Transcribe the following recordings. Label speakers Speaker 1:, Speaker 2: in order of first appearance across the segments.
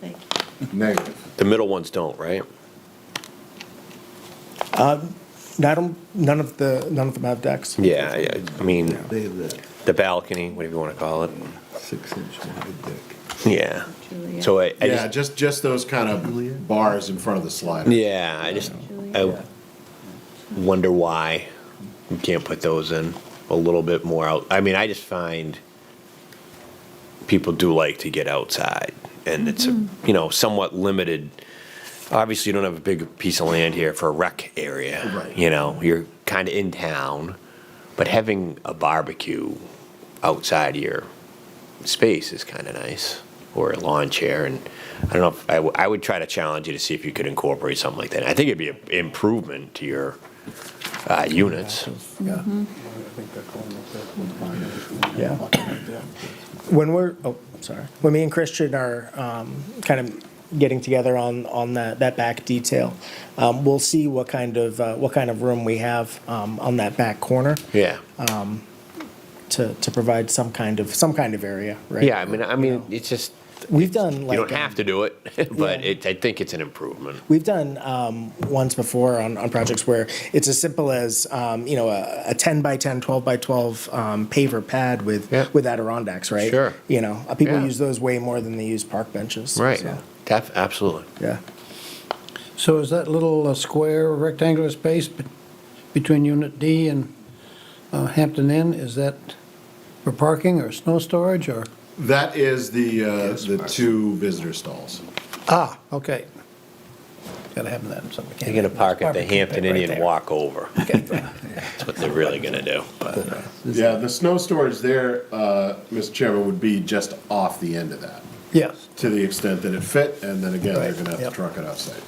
Speaker 1: Thank you.
Speaker 2: Negative.
Speaker 3: The middle ones don't, right?
Speaker 4: I don't, none of the, none of them have decks.
Speaker 3: Yeah, I- I mean,
Speaker 2: They have that
Speaker 3: the balcony, whatever you want to call it.
Speaker 2: six-inch wide deck.
Speaker 3: Yeah. So uh, I, I
Speaker 5: Yeah,
Speaker 3: just,
Speaker 5: just, just those kind of bars in front of the slider.
Speaker 3: yeah, I just, I wonder why you can't put those in a little bit more out. I mean, I just find people do like to get outside and it's, a you know, somewhat limited. Obviously, you don't have a big piece of land here for a rec area.
Speaker 5: Right.
Speaker 3: You know, you're kind of in town, but having a barbecue outside your space is kind of nice, or a lawn chair. And I don't know, if I, w- I would try to challenge you to see if you could incorporate something like that. I think it'd be an improvement to your uh, units.
Speaker 4: Yeah. Yeah. When we're, oh, sorry, when me and Christian are um, kind of getting together on, on that, that back detail, um, we'll see what kind of, uh, what kind of room we have um, on that back corner
Speaker 3: Yeah.
Speaker 4: to, to provide some kind of, some kind of area, right?
Speaker 3: Yeah, I mean, I mean, it's just,
Speaker 4: We've done
Speaker 3: you
Speaker 4: like.
Speaker 3: don't
Speaker 4: um,
Speaker 3: have to do it, but
Speaker 4: Yeah.
Speaker 3: it, I think it's an improvement.
Speaker 4: We've done um, ones before on, on projects where it's as simple as, um, you know, a, a 10 by 10, 12 by 12 um, paver pad with,
Speaker 3: Yeah.
Speaker 4: with Adirondacks, right?
Speaker 3: Sure.
Speaker 4: You know, uh, people
Speaker 3: Yeah.
Speaker 4: use those way more than they use park benches.
Speaker 3: Right.
Speaker 4: so,
Speaker 3: Def- absolutely.
Speaker 4: yeah.
Speaker 6: So is that little uh, square rectangular space be- between Unit D and uh, Hampton Inn, is that for parking or snow storage or?
Speaker 5: That is the, uh, the two visitor stalls.
Speaker 6: Ah, okay. Gotta have that, so we can't.
Speaker 3: They're going to park at the Hampton
Speaker 6: Right
Speaker 3: Inn and
Speaker 6: there.
Speaker 3: walk over. That's what they're really going to do. But
Speaker 5: Yeah, the snow storage there, uh, Mr. Chairman, would be just off the end of that,
Speaker 6: Yes,
Speaker 5: to the extent that it fit, and then again, they're
Speaker 6: Right,
Speaker 5: gonna have to
Speaker 6: yep.
Speaker 5: truck it outside.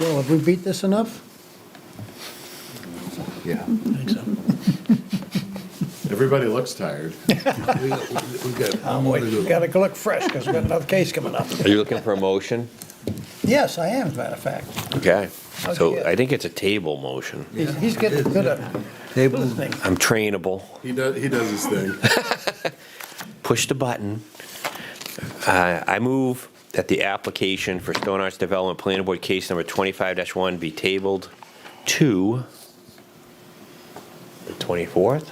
Speaker 6: well, have we beat this enough?
Speaker 2: Yeah.
Speaker 5: Everybody looks tired.
Speaker 2: We we got more to do.
Speaker 6: Gotta look fresh, because we've got another case coming up.
Speaker 3: Are you looking for a motion?
Speaker 6: Yes, I am, as a matter of fact.
Speaker 3: Okay,
Speaker 6: How'd you
Speaker 3: so
Speaker 6: get-
Speaker 3: I think it's a table motion.
Speaker 6: He's he's getting good at
Speaker 2: Table,
Speaker 6: listening.
Speaker 3: I'm trainable.
Speaker 5: He does, he does his thing.
Speaker 3: Push the button. Uh, I move that the application for Stone Arts Development Planning Board Case Number 25-1 be tabled to the 24th?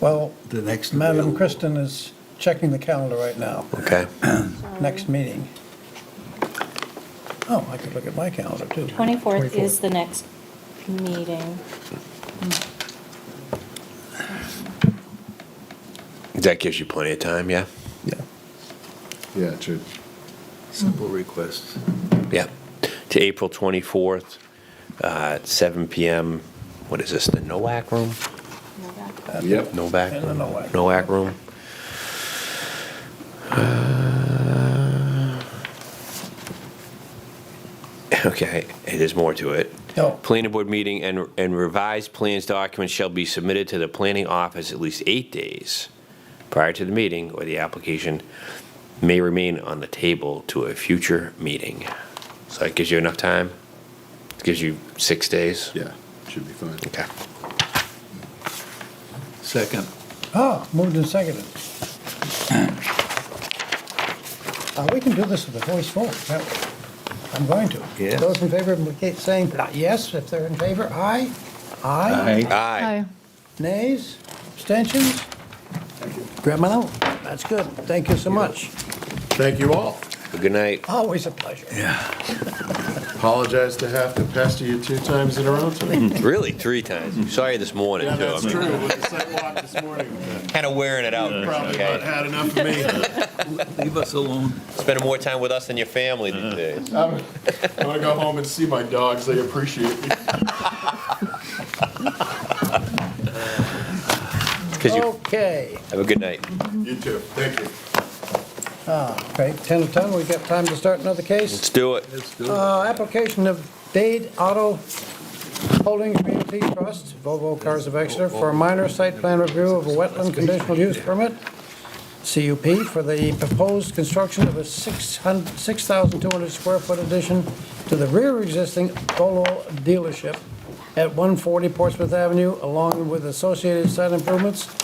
Speaker 6: Well,
Speaker 2: the next.
Speaker 6: Madam
Speaker 2: available.
Speaker 6: Kristen is checking the calendar right now.
Speaker 3: Okay.
Speaker 6: next meeting. Oh, I could look at my calendar, too.
Speaker 1: 24th is the next meeting.
Speaker 3: That gives you plenty of time, yeah?
Speaker 6: Yeah.
Speaker 5: Yeah, true.
Speaker 2: Simple request.
Speaker 3: Yeah. To April 24th, uh, at 7 PM. What is this, the NOAC room?
Speaker 5: Yep.
Speaker 3: Novak?
Speaker 6: In the NOAC.
Speaker 3: Novak room. Uh, Okay, there's more to it.
Speaker 6: Oh.
Speaker 3: Planning board meeting and and revised plans documents shall be submitted to the planning office at least eight days prior to the meeting, or the application may remain on the table to a future meeting. So that gives you enough time? Gives you six days?
Speaker 5: Yeah, should be fine.
Speaker 3: Okay.
Speaker 2: Second.
Speaker 6: Oh, moved and seconded. Uh, We can do this with a voice vote, can't we? I'm going to.
Speaker 2: Yes.
Speaker 6: Those in favor indicate saying yes, if they're in favor, aye. Aye.
Speaker 3: Aye.
Speaker 6: Nays, abstentions? Grab mine out. That's good. Thank you so much.
Speaker 5: Thank you all.
Speaker 3: Good night.
Speaker 6: Always a pleasure.
Speaker 5: Apologize to have to pester you two times in a row tonight.
Speaker 3: Really, three times. Sorry this morning,
Speaker 5: Mm-hmm. Yeah,
Speaker 3: too.
Speaker 5: that's
Speaker 3: I mean,
Speaker 5: true, with the sidewalk this morning.
Speaker 3: Kind of wearing it out.
Speaker 5: Probably not
Speaker 3: Okay?
Speaker 5: had enough of me.
Speaker 2: Leave us alone.
Speaker 3: Spending more time with us than your family these days.
Speaker 5: I'm, I'm gonna go home and see my dogs. They appreciate me.
Speaker 3: Because
Speaker 5: Oh.
Speaker 3: you
Speaker 6: Okay.
Speaker 3: have a good night.
Speaker 5: You too. Thank you.
Speaker 6: Okay, 10 to 10, we got time to start another case?
Speaker 3: Let's do it.
Speaker 2: Let's do it.
Speaker 6: Uh, Application of Dade Auto Holdings Realty Trust, Volvo Cars of Exeter, for a minor site plan review of a wetland conditional use permit, CUP, for the proposed construction of a 600 6,200 square foot addition to the rear existing Volvo dealership at 140 Portsmouth Avenue, along with associated site improvements